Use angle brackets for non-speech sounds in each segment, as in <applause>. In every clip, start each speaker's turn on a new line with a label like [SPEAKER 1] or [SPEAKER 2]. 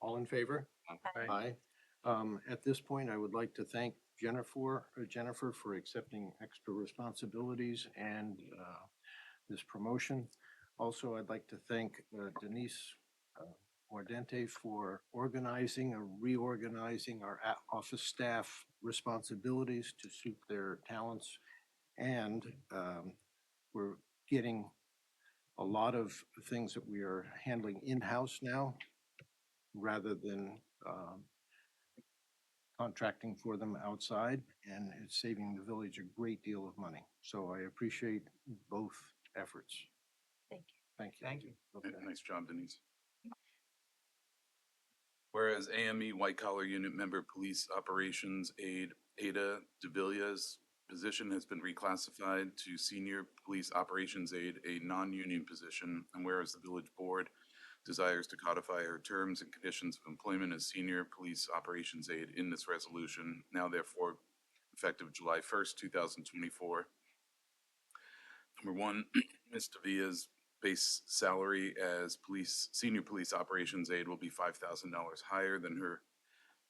[SPEAKER 1] All in favor? Aye. Um, at this point, I would like to thank Jennifer, uh, Jennifer for accepting extra responsibilities and, uh, this promotion. Also, I'd like to thank uh, Denise uh, Mordente for organizing or reorganizing our a- office staff responsibilities to suit their talents. And,
[SPEAKER 2] Mm-hmm.
[SPEAKER 1] um, we're getting a lot of things that we are handling in-house now rather than, um, contracting for them outside, and it's saving the village a great deal of money. So I appreciate both efforts.
[SPEAKER 3] Thank you.
[SPEAKER 1] Thank you.
[SPEAKER 2] Thank you.
[SPEAKER 1] Okay.
[SPEAKER 4] N- Nice job, Denise. Whereas AME White Collar Unit Member Police Operations Aide Ada DeVilla's position has been reclassified to Senior Police Operations Aide, a non-union position. And whereas the Village Board desires to codify her terms and conditions of employment as Senior Police Operations Aide in this resolution, now therefore effective July 1st, 2024. Number one, <clears throat> Ms. DeVilla's base salary as police, senior police operations aide will be five thousand dollars higher than her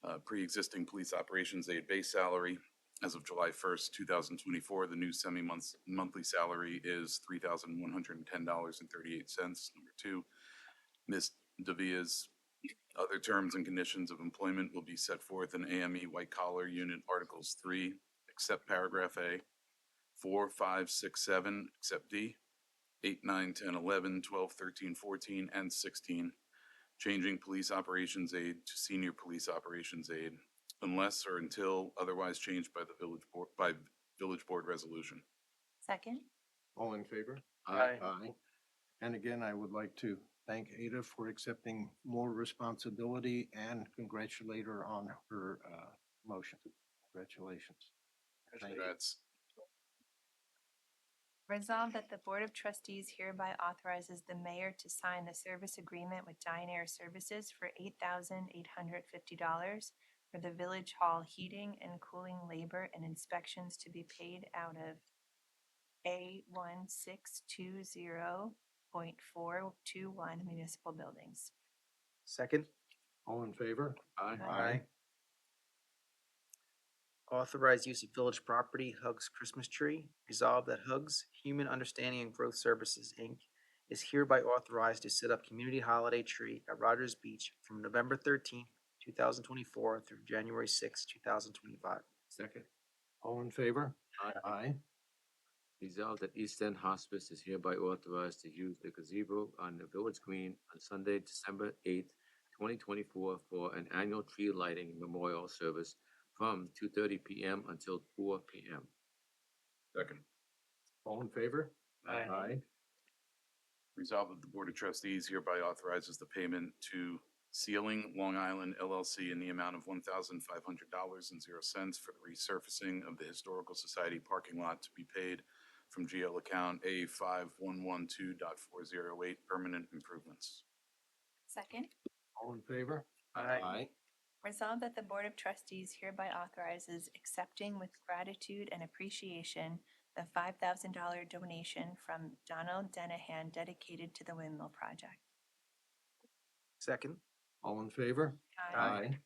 [SPEAKER 4] uh, pre-existing police operations aide base salary. As of July first, two thousand twenty-four, the new semi-month, monthly salary is three thousand one hundred and ten dollars and thirty-eight cents. Number two, Ms. Davia's other terms and conditions of employment will be set forth in AME White Collar Unit Articles Three, except paragraph A, four, five, six, seven, except D, 8, 9, 10, 11, 12, 13, 14, and 16, changing police operations aide to senior police operations aide unless or until otherwise changed by the village board, by village board resolution.
[SPEAKER 3] Second?
[SPEAKER 1] All in favor?
[SPEAKER 2] Aye.
[SPEAKER 1] Aye. And again, I would like to thank Ada for accepting more responsibility and congratulate her on her, uh, motion. Congratulations. Thank you.
[SPEAKER 4] Congrats.
[SPEAKER 3] Resolved that the Board of Trustees hereby authorizes the mayor to sign the service agreement with Dine Air Services for eight thousand eight hundred fifty dollars for the Village Hall heating and cooling labor and inspections to be paid out of A one six two zero point four two one municipal buildings.
[SPEAKER 2] Second,
[SPEAKER 1] All in favor?
[SPEAKER 2] Aye. authorize use of village property, Hugs Christmas Tree. Resolve that Hugs Human Understanding and Growth Services, Inc. is hereby authorized to set up community holiday tree at Rogers Beach from November thirteenth, two thousand twenty-four through January sixth, two thousand twenty-five.
[SPEAKER 5] Second,
[SPEAKER 1] All in favor?
[SPEAKER 5] Aye.
[SPEAKER 1] Aye.
[SPEAKER 5] resolved that East End Hospice is hereby authorized to use the gazebo on the village green on Sunday, December eighth, twenty twenty-four for an annual tree lighting memorial service from two thirty PM until four PM.
[SPEAKER 4] Second.
[SPEAKER 1] All in favor?
[SPEAKER 2] Aye.
[SPEAKER 1] Aye.
[SPEAKER 4] Resolved that the Board of Trustees hereby authorizes the payment to Sealing Long Island LLC in the amount of one thousand five hundred dollars and zero cents for the resurfacing of the Historical Society parking lot to be paid from GL account A five one one two dot four zero eight, permanent improvements.
[SPEAKER 3] Second?
[SPEAKER 1] All in favor?
[SPEAKER 2] Aye.
[SPEAKER 3] Resolved that the Board of Trustees hereby authorizes accepting with gratitude and appreciation the five thousand dollar donation from Donald Denahan dedicated to the windmill project.
[SPEAKER 2] Second,
[SPEAKER 1] All in favor?
[SPEAKER 2] Aye.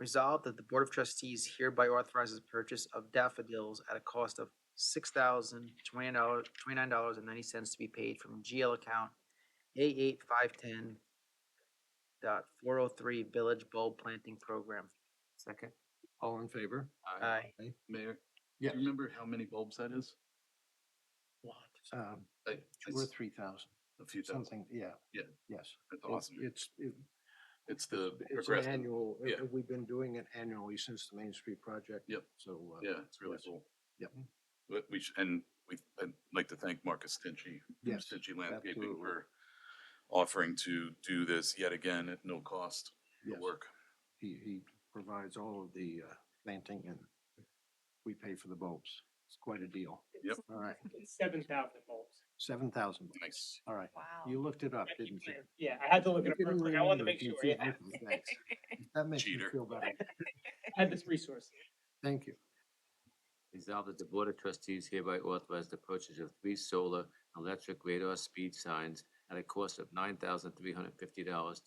[SPEAKER 2] Resolved that the Board of Trustees hereby authorizes purchase of daffodils at a cost of six thousand twenty-nine dollars, twenty-nine dollars and ninety cents to be paid from GL account A eight five ten dot four oh three Village Bulb Planting Program.
[SPEAKER 5] Second.
[SPEAKER 1] All in favor?
[SPEAKER 2] Aye.
[SPEAKER 4] Mayor?
[SPEAKER 1] Yeah.
[SPEAKER 4] Do you remember how many bulbs that is?
[SPEAKER 1] Um,
[SPEAKER 4] Like,
[SPEAKER 1] two or
[SPEAKER 4] it's
[SPEAKER 1] three thousand,
[SPEAKER 4] A few thousand.
[SPEAKER 1] something, yeah.
[SPEAKER 4] Yeah.
[SPEAKER 1] Yes.
[SPEAKER 4] That's
[SPEAKER 1] It-
[SPEAKER 4] awesome.
[SPEAKER 1] It's, it-
[SPEAKER 4] It's the
[SPEAKER 1] it's an
[SPEAKER 4] progressive-
[SPEAKER 1] annual, uh,
[SPEAKER 4] yeah.
[SPEAKER 1] we've been doing it annually since the Main Street project.
[SPEAKER 4] Yep.
[SPEAKER 1] So. uh,
[SPEAKER 4] Yeah, it's really
[SPEAKER 1] yes.
[SPEAKER 4] cool.
[SPEAKER 1] Yep.
[SPEAKER 4] But we, sh- and we, I'd like to thank Marcus Stingy. from
[SPEAKER 1] Yes,
[SPEAKER 4] Stingy Landscaping
[SPEAKER 1] absolutely.
[SPEAKER 4] for offering to do this yet again at no cost
[SPEAKER 1] Yes.
[SPEAKER 4] to work.
[SPEAKER 1] He, he provides all of the uh, planting and we pay for the bulbs. It's quite a deal.
[SPEAKER 4] Yep.
[SPEAKER 1] All right,
[SPEAKER 6] seven thousand bulbs.
[SPEAKER 1] seven thousand.
[SPEAKER 4] Nice.
[SPEAKER 1] All right,
[SPEAKER 3] Wow.
[SPEAKER 1] you looked it up,
[SPEAKER 6] I keep
[SPEAKER 1] didn't you?
[SPEAKER 6] saying- Yeah, I had to look it
[SPEAKER 1] You
[SPEAKER 6] up.
[SPEAKER 1] didn't
[SPEAKER 6] real quick. I wanted to
[SPEAKER 1] remember
[SPEAKER 6] make
[SPEAKER 1] if you
[SPEAKER 6] sure.
[SPEAKER 1] see
[SPEAKER 6] yeah. <laughs>
[SPEAKER 1] anything. Thanks. That makes me
[SPEAKER 4] Cheater.
[SPEAKER 1] feel better.
[SPEAKER 6] I had this resource.
[SPEAKER 1] Thank you.
[SPEAKER 5] Resolved that the Board of Trustees hereby authorize the purchase of three solar electric radar speed signs at a cost of nine thousand three hundred fifty dollars